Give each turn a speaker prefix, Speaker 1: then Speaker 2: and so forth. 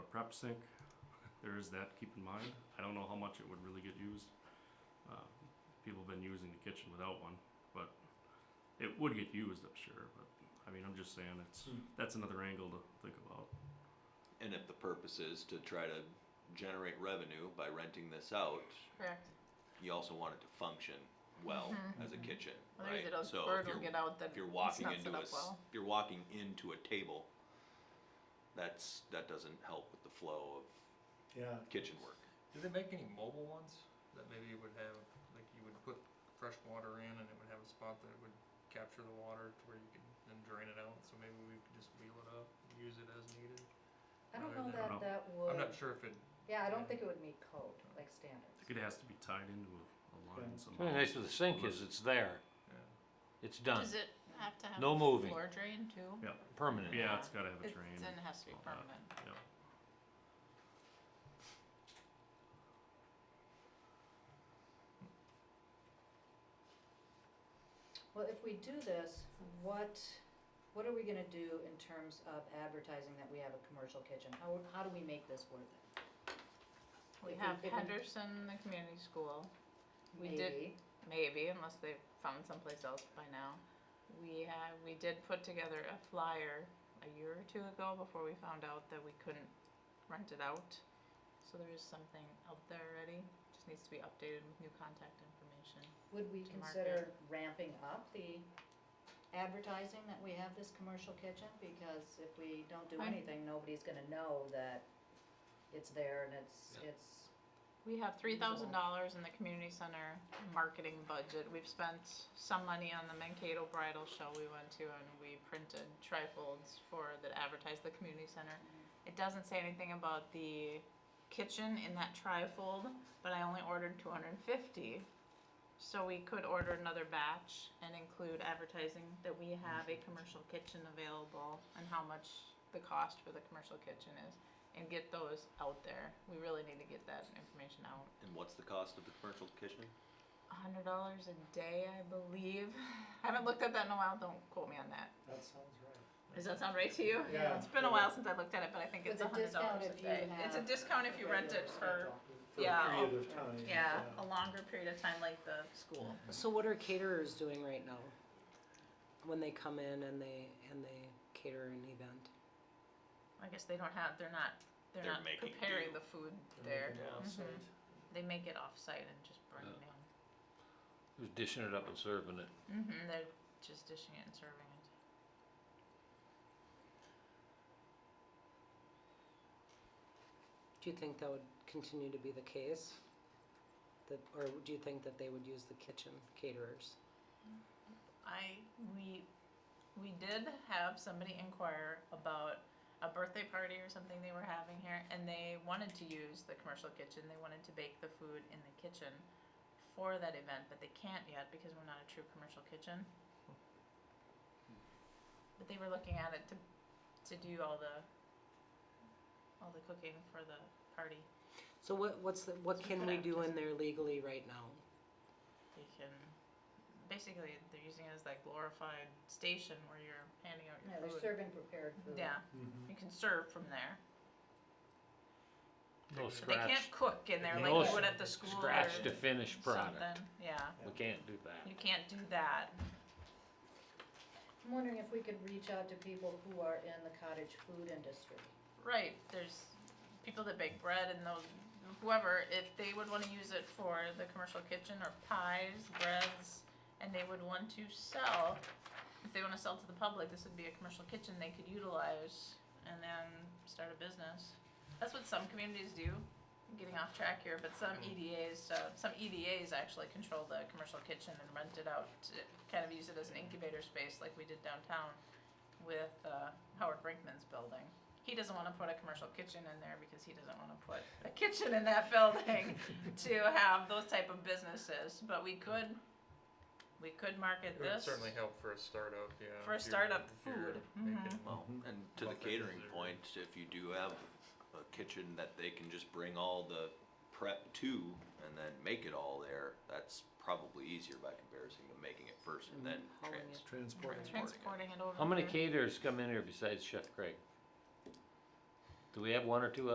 Speaker 1: prep sync. There is that, to keep in mind. I don't know how much it would really get used. Uh, people have been using the kitchen without one, but it would get used, I'm sure. But I mean, I'm just saying it's
Speaker 2: Hmm.
Speaker 1: that's another angle to think about.
Speaker 3: And if the purpose is to try to generate revenue by renting this out,
Speaker 4: Correct.
Speaker 3: you also want it to function well
Speaker 4: Mhm.
Speaker 3: as a kitchen,
Speaker 4: Otherwise
Speaker 3: right?
Speaker 4: it'll,
Speaker 3: So
Speaker 4: word
Speaker 3: if
Speaker 4: will
Speaker 3: you're,
Speaker 4: get out that
Speaker 3: if you're
Speaker 4: it's
Speaker 3: walking
Speaker 4: not
Speaker 3: into
Speaker 4: set
Speaker 3: a,
Speaker 4: up
Speaker 3: s-
Speaker 4: well.
Speaker 3: if you're walking into a table, that's, that doesn't help with the flow of
Speaker 2: Yeah.
Speaker 3: kitchen work.
Speaker 5: Do they make any mobile ones that maybe would have, like you would put fresh water in and it would have a spot that would capture the water to where you could then drain it out, so maybe we could just wheel it up and use it as needed?
Speaker 6: I don't
Speaker 5: rather
Speaker 6: know
Speaker 5: than-
Speaker 1: know.
Speaker 6: that that
Speaker 5: I'm
Speaker 6: would,
Speaker 5: not sure if it,
Speaker 6: yeah, I don't think it would meet code, like
Speaker 1: I
Speaker 6: standards.
Speaker 1: think it has to be tied into a, a line
Speaker 2: Yeah.
Speaker 1: somehow.
Speaker 7: Really nice with the sink is it's there,
Speaker 5: yeah.
Speaker 7: it's done,
Speaker 4: Does it have to have
Speaker 7: No
Speaker 4: a
Speaker 7: moving.
Speaker 4: floor drain too?
Speaker 1: Yeah.
Speaker 7: permanent.
Speaker 1: Yeah, it's got to have a
Speaker 4: It-
Speaker 1: drain.
Speaker 4: Then it has to be
Speaker 1: all that.
Speaker 4: permanent.
Speaker 1: Yep.
Speaker 6: Well, if we do this, what, what are we gonna do in terms of advertising that we have a commercial kitchen? How, how do we make this worth it?
Speaker 4: We
Speaker 6: If
Speaker 4: have
Speaker 6: if
Speaker 4: Henderson, the community school, we did-
Speaker 6: maybe.
Speaker 4: maybe, unless they've found someplace else by now. We have, we did put together a flyer a year or two ago before we found out that we couldn't rent it out. So there is something out there already, just needs to be updated with new contact information.
Speaker 6: Would we
Speaker 4: to
Speaker 6: consider ramping up the advertising that we have this commercial kitchen? Because if we don't do
Speaker 4: I-
Speaker 6: anything, nobody's gonna know that it's there and it's, it's,
Speaker 4: We have three thousand dollars in the community center marketing budget. We've spent some money on the Mankato bridal show we went to and we printed trifolds for that advertise the community center. It doesn't say anything about the kitchen in that trifold, but I only ordered two hundred and fifty. So we could order another batch and include advertising that we have a commercial kitchen available and how much the cost for the commercial kitchen is and get those out there. We really need to get that information out.
Speaker 3: And what's the cost of the commercial kitchen?
Speaker 4: A hundred dollars a day, I believe. I haven't looked at that in a while. Don't quote me on that.
Speaker 2: That sounds right.
Speaker 4: Does that sound right to you?
Speaker 2: Yeah.
Speaker 4: It's been a while since I looked at it, but I think
Speaker 6: With
Speaker 4: it's a
Speaker 6: a
Speaker 4: hundred
Speaker 6: discount
Speaker 4: dollars a
Speaker 6: if you
Speaker 4: day. It's a
Speaker 6: have
Speaker 4: discount if you rent it for
Speaker 2: For
Speaker 4: yeah,
Speaker 2: a period of time.
Speaker 4: yeah a longer period of time, like the school.
Speaker 8: So what are caterers doing right now? When they come in and they and they cater an event?
Speaker 4: I guess they don't have. They're not. They're,
Speaker 3: They're
Speaker 4: not
Speaker 3: making
Speaker 4: preparing
Speaker 3: do.
Speaker 4: the food
Speaker 2: They're
Speaker 4: there.
Speaker 2: making
Speaker 3: Yeah.
Speaker 4: Mhm.
Speaker 2: offsite.
Speaker 4: They make it off-site and just bring
Speaker 7: Yeah.
Speaker 4: it in.
Speaker 7: Who's dishing it up and serving it?
Speaker 4: Mm-hmm. They're just dishing it and serving it.
Speaker 8: Do you think that would continue to be the case? That or do you think that they would use the kitchen caterers?
Speaker 4: I we we did have somebody inquire about a birthday party or something they were having here and they wanted to use the commercial kitchen. They wanted to bake the food in the kitchen for that event, but they can't yet because we're not a true commercial kitchen. But they were looking at it to to do all the all the cooking for the party.
Speaker 8: So what what's the, what can we do in there legally right now?
Speaker 4: They can basically they're using it as that glorified station where you're handing out your
Speaker 6: yeah, they're
Speaker 4: food.
Speaker 6: serving prepared food.
Speaker 4: Yeah.
Speaker 2: Mhm.
Speaker 4: You can serve from there.
Speaker 7: No
Speaker 4: But they
Speaker 7: scratch,
Speaker 4: can't cook in there
Speaker 7: No
Speaker 4: like
Speaker 7: s-
Speaker 4: you would at the school or
Speaker 7: scratch
Speaker 4: something.
Speaker 7: to finish product,
Speaker 4: Yeah,
Speaker 7: we can't do
Speaker 4: you
Speaker 7: that.
Speaker 4: can't do that.
Speaker 6: I'm wondering if we could reach out to people who are in the cottage food industry.
Speaker 4: Right, there's people that bake bread and those, whoever, if they would wanna use it for the commercial kitchen or pies, breads, and they would want to sell, if they wanna sell to the public, this would be a commercial kitchen they could utilize and then start a business. That's what some communities do, I'm getting off track here, but
Speaker 5: Mm.
Speaker 4: some EDAs, uh, some EDAs actually control the commercial kitchen and rent it out to kind of use it as an incubator space like we did downtown with, uh, Howard Brinkman's building he doesn't want to put a commercial kitchen in there because he doesn't want to put a kitchen in that building to have those type of businesses. But we could, we could market
Speaker 5: It would
Speaker 4: this.
Speaker 5: certainly help for a startup, yeah.
Speaker 4: For a
Speaker 5: if you're-
Speaker 4: startup
Speaker 5: if you're
Speaker 4: food, Mm-hmm.
Speaker 5: making-
Speaker 3: Well, and to the
Speaker 5: Buffets
Speaker 3: catering
Speaker 5: or-
Speaker 3: point, if you do have a kitchen that they can just bring all the prep to and then make it all there, that's probably easier by comparison to making it first and then
Speaker 8: Hauling
Speaker 3: trans-
Speaker 8: it.
Speaker 2: Transporting.
Speaker 4: Transporting it over.
Speaker 7: How many
Speaker 4: here.
Speaker 7: caterers come in here besides Chef Craig? Do we have one or two